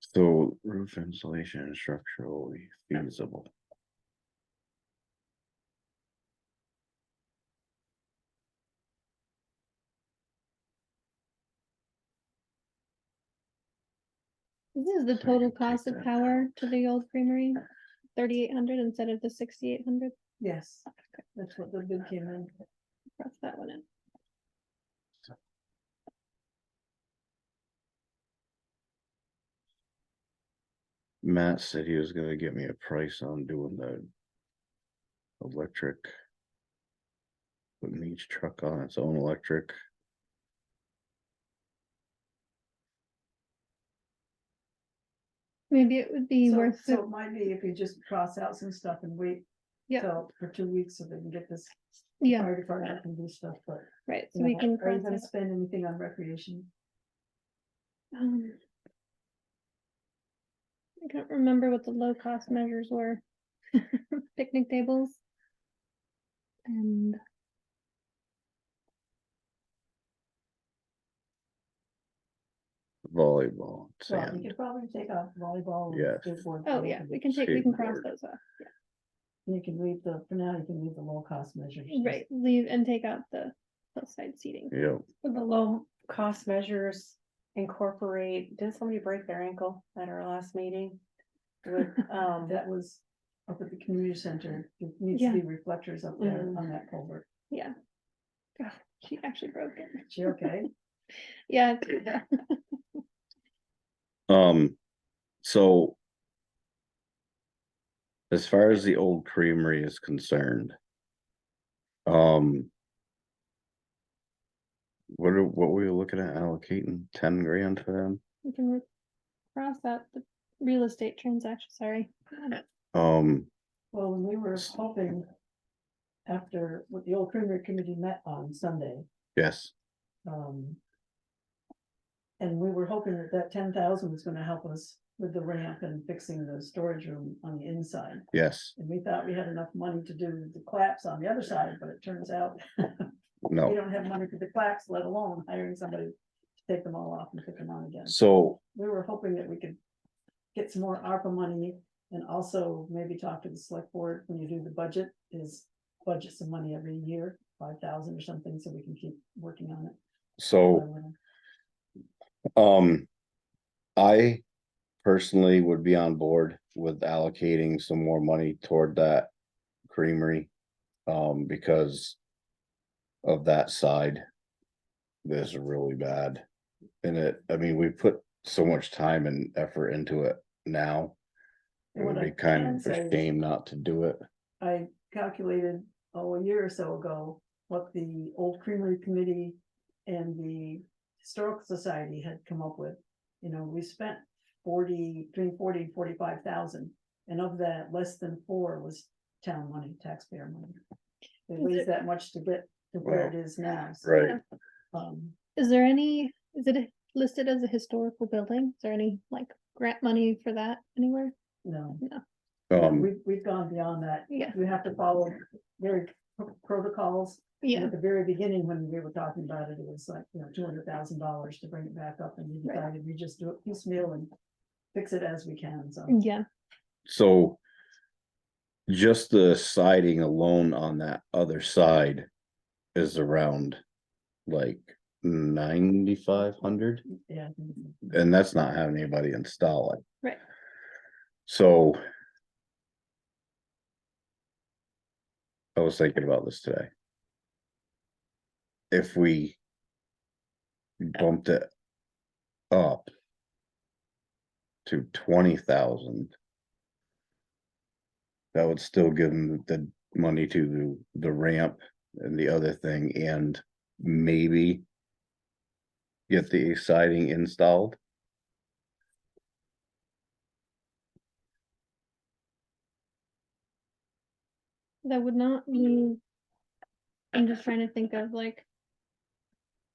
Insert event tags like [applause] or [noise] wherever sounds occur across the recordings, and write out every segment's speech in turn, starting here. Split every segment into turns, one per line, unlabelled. So roof insulation is structurally feasible.
This is the
So you
total
take
cost
that
of
out.
power to the old creamery,
Uh.
thirty-eight hundred instead of the sixty-eight hundred,
Yes, that's what the bid came in.
cross that one out.
Matt said he was gonna get me a price on doing the. Electric. Putting each truck on its own electric.
Maybe it would be
So-
worth
So
it,
it might be if you just cross out some stuff and wait.
Yeah.
till- For two weeks so they can get this.
yeah,
Fire department can do stuff, but.
right,
you
so we
know,
can.
Are you
cross
gonna
out,
spend anything on recreation?
um, I can't remember what the low-cost measures were, [laughs] picnic tables. And
Volleyball,
Well, you
sand,
could probably take off volleyball. and
Yes.
skateboard
Oh,
and
yeah, we can take, we can cross
Skateboard.
those off,
You can leave the, for now, you can leave the low cost measures. just-
right, leave and take out the hillside seating.
yep,
Would The low cost measures incorporate, did somebody break their ankle at our last meeting? With,
[laughs]
um,
That was up at the community center. There needs to
Yeah. Mm-hmm.
be reflectors up there
Mhm.
on that culvert.
Yeah. Oh, She actually broke it.
She okay?
Yeah.
[laughs]
um, so. As far as the old creamery is concerned. Um. What are, what were you looking at allocating, ten grand for them?
We can re- cross out the real estate transaction, sorry.
Um,
Well, when we were hoping after what the old Creamery Committee met on Sunday,
yes,
um. And we were hoping that that ten thousand was gonna help us with the ramp and fixing the storage room on the inside.
yes,
And we thought we had enough money to do the claps on the other side, but it turns out we
no,
don't have money for the claps, let alone hiring somebody to take them all off and put them on again.
so
We were hoping that we could get some more ARPA money and also maybe talk to the select board when you do the budget is budget some money every year, five thousand or something, so we can keep working on it.
So, um. I personally would be on board with allocating some more money toward that creamery. Um, because. Of that side. This is really bad. And it, I mean, we put so much time and effort into it now. It
What
would
I
be kind
can
of
say
a
is-
shame not to do it.
I calculated, oh, a year or so ago, what the old creamery committee and the historical society had come up with. You know, we spent forty, between forty and forty-five thousand, and of that, less than four was town money, taxpayer money. They
Is it-
raised that much to get to where it is now. so,
Right.
um,
Is there any, is it listed as a historical building? Is there any like grant money for that anywhere?
No,
Um,
we've, we've gone beyond that.
Yeah,
You have to follow very protocols And
yeah,
At the very beginning, when we were talking about it, it was like, you know, two hundred thousand dollars to bring it back up and we
Right.
decided we just do it piecemeal and fix it as we can, so.
yeah,
so. Just the siding alone on that other side is around like ninety-five hundred,
Yeah,
and that's not having anybody install it.
Right.
So. I was thinking about this today. If we. Bumped it. Up. To twenty thousand. That would still give them the money to the the ramp and the other thing and maybe. Get the siding installed.
that would not leave. I'm just trying to think of like.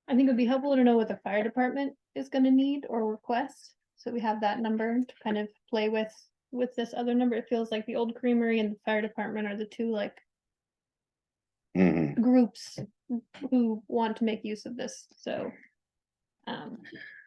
I think it'd be helpful to know what the fire department is gonna need or request, so we have that number to kind of play with. With this other number, it feels like the old creamery and the fire department are the two like
Mhm.
groups who want to make use of this, so. Um,